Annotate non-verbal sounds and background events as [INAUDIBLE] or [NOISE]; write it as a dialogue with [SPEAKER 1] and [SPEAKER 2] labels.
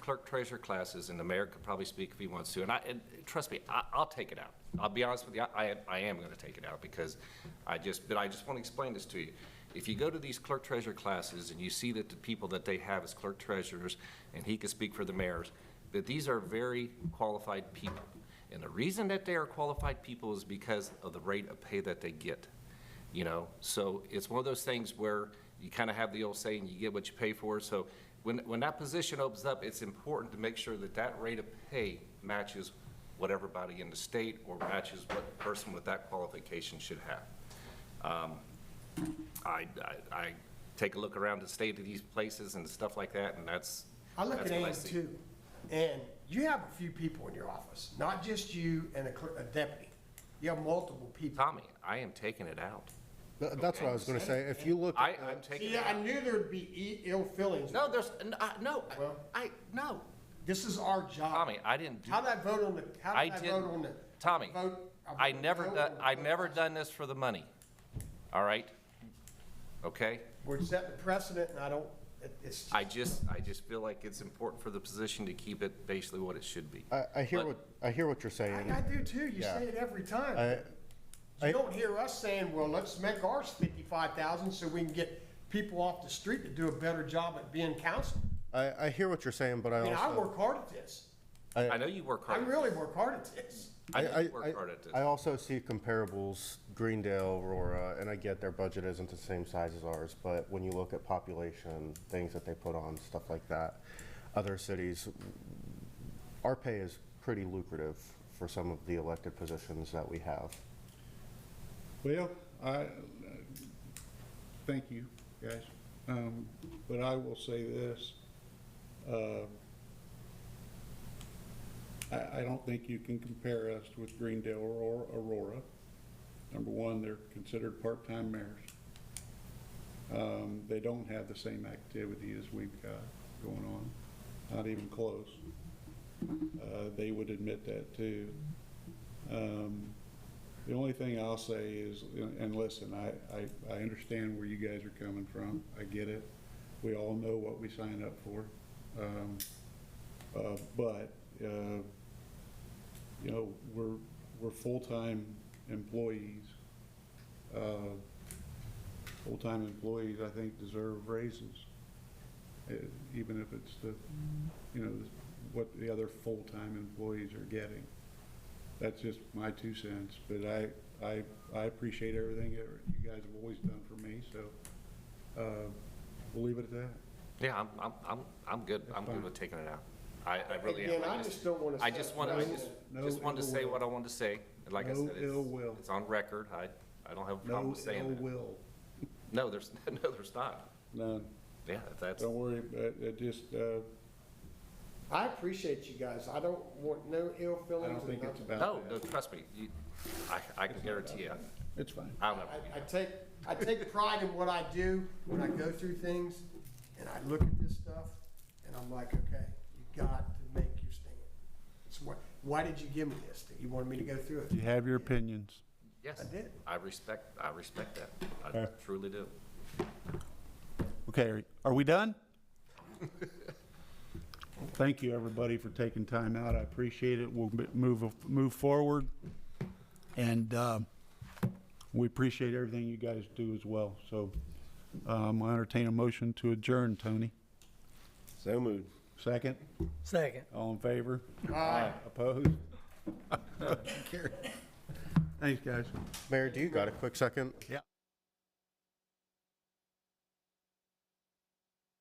[SPEAKER 1] clerk treasurer classes, and the mayor could probably speak if he wants to, and I, and trust me, I, I'll take it out. I'll be honest with you, I, I am gonna take it out, because I just, but I just wanna explain this to you. If you go to these clerk treasurer classes and you see that the people that they have as clerk treasurers, and he could speak for the mayors, that these are very qualified people. And the reason that they are qualified people is because of the rate of pay that they get you know? So it's one of those things where you kind of have the old saying, you get what you pay for. So when, when that position opens up, it's important to make sure that that rate of pay matches what everybody in the state or matches what the person with that qualification should have. Um, I, I, I take a look around the state of these places and stuff like that, and that's,
[SPEAKER 2] I look
[SPEAKER 1] that's
[SPEAKER 2] at
[SPEAKER 1] what I
[SPEAKER 2] Ann
[SPEAKER 1] see.
[SPEAKER 2] too, and you have a few people in your office, not just you and a cl- a deputy. You have multiple people.
[SPEAKER 1] Tommy, I am taking it out.
[SPEAKER 3] Th- That's what I was gonna say. If you look,
[SPEAKER 1] I,
[SPEAKER 3] at
[SPEAKER 1] I'm taking
[SPEAKER 2] See,
[SPEAKER 1] it
[SPEAKER 2] I
[SPEAKER 1] out.
[SPEAKER 2] knew there'd be i- ill feelings.
[SPEAKER 1] No, there's, n- I- no,
[SPEAKER 2] Well-
[SPEAKER 1] I, no,
[SPEAKER 2] This is our job.
[SPEAKER 1] Tommy, I didn't do
[SPEAKER 2] How did I vote on the, how
[SPEAKER 1] I
[SPEAKER 2] did I vote
[SPEAKER 1] didn't,
[SPEAKER 2] on the?
[SPEAKER 1] Tommy,
[SPEAKER 2] vote-
[SPEAKER 1] I
[SPEAKER 2] voted
[SPEAKER 1] never,
[SPEAKER 2] no
[SPEAKER 1] done.
[SPEAKER 2] on the
[SPEAKER 1] I
[SPEAKER 2] vote.
[SPEAKER 1] never done this for the money, all right? Okay?
[SPEAKER 2] We're setting a precedent and I don't, it- it's,
[SPEAKER 1] I just, I just feel like it's important for the position to keep it basically what it should be.
[SPEAKER 3] I, I hear
[SPEAKER 1] But-
[SPEAKER 3] what, I hear what you're
[SPEAKER 2] I
[SPEAKER 3] saying.
[SPEAKER 2] I do too, you
[SPEAKER 3] Yeah.
[SPEAKER 2] say it every time.
[SPEAKER 3] I-
[SPEAKER 2] You
[SPEAKER 3] I-
[SPEAKER 2] don't hear us saying, well, let's make ours fifty-five thousand so we can get people off the street to do a better job at being counselor.
[SPEAKER 3] I, I hear what you're saying, but
[SPEAKER 2] I
[SPEAKER 3] I
[SPEAKER 2] mean, I
[SPEAKER 3] also,
[SPEAKER 2] work hard at this.
[SPEAKER 1] I know you work
[SPEAKER 2] I
[SPEAKER 1] hard.
[SPEAKER 2] really work hard at this.
[SPEAKER 1] I
[SPEAKER 3] I,
[SPEAKER 1] know you
[SPEAKER 3] I,
[SPEAKER 1] work hard at
[SPEAKER 3] I
[SPEAKER 1] this.
[SPEAKER 3] also see comparables, Greendale, Aurora, and I get their budget isn't the same size as ours, but when you look at population, things that they put on, stuff like that, other cities, our pay is pretty lucrative for some of the elected positions that we have.
[SPEAKER 4] Well, I, uh, thank you, guys. Um, But I will say this. uh, I, I don't think you can compare us with Greendale or Aurora. Number one, they're considered part-time mayors. Um, They don't have the same activity as we've got going on, not even close. Uh, They would admit that too. Um, the only thing I'll say is, and listen, I, I, I understand where you guys are coming from. I get it. We all know what we signed up for. Um, uh, but, uh, you know, we're, we're full-time employees. Uh, full-time employees, I think, deserve raises. eh, Even if it's the, you know, what the other full-time employees are getting. That's just my two cents, but I, I, I appreciate everything that you guys have always done for me, so, uh, we'll leave it at that.
[SPEAKER 1] Yeah, I'm, I'm, I'm, I'm good. I'm good with taking it out. I, I really am.
[SPEAKER 2] Again, I just don't wanna
[SPEAKER 1] I
[SPEAKER 2] say-
[SPEAKER 1] just want, I just,
[SPEAKER 4] No
[SPEAKER 1] just wanted to
[SPEAKER 4] ill
[SPEAKER 1] say
[SPEAKER 4] will.
[SPEAKER 1] what I wanted to say. And Like I
[SPEAKER 4] No
[SPEAKER 1] said, it's,
[SPEAKER 4] ill will.
[SPEAKER 1] it's on record. I, I don't have a problem
[SPEAKER 4] No
[SPEAKER 1] with
[SPEAKER 4] ill
[SPEAKER 1] saying that.
[SPEAKER 4] will,
[SPEAKER 1] No, there's, [LAUGHS] no, there's not.
[SPEAKER 4] none.
[SPEAKER 1] Yeah, that's,
[SPEAKER 4] Don't worry, but it just, uh,
[SPEAKER 2] I appreciate you guys. I don't want no ill feelings.
[SPEAKER 4] I don't
[SPEAKER 2] and
[SPEAKER 4] think it's
[SPEAKER 2] nothing.
[SPEAKER 4] about
[SPEAKER 1] no, no,
[SPEAKER 4] that.
[SPEAKER 1] trust me. You- I, I can guarantee you,
[SPEAKER 4] It's fine.
[SPEAKER 1] I'll never do that.
[SPEAKER 2] I, I take, I take pride in what I do when I go through things and I look at this stuff and I'm like, okay, you got to make your stand. It's what, why did you give me this? That you wanted me to go through it?
[SPEAKER 4] You have your opinions.
[SPEAKER 1] Yes.
[SPEAKER 2] I did.
[SPEAKER 1] I respect, I respect that. I
[SPEAKER 4] Fair.
[SPEAKER 1] truly do.
[SPEAKER 4] Okay, are- are we done? [LAUGHS] Thank you, everybody, for taking time out. I appreciate it. We'll m- move, move forward. And um, we appreciate everything you guys do as well. So um, I entertain a motion to adjourn, Tony.
[SPEAKER 3] So moved.
[SPEAKER 4] Second?
[SPEAKER 5] Second.
[SPEAKER 4] All in favor? Aye. Opposed? [LAUGHS] Carry. Thanks, guys.
[SPEAKER 3] Mayor, do you got a quick second?
[SPEAKER 4] Yeah.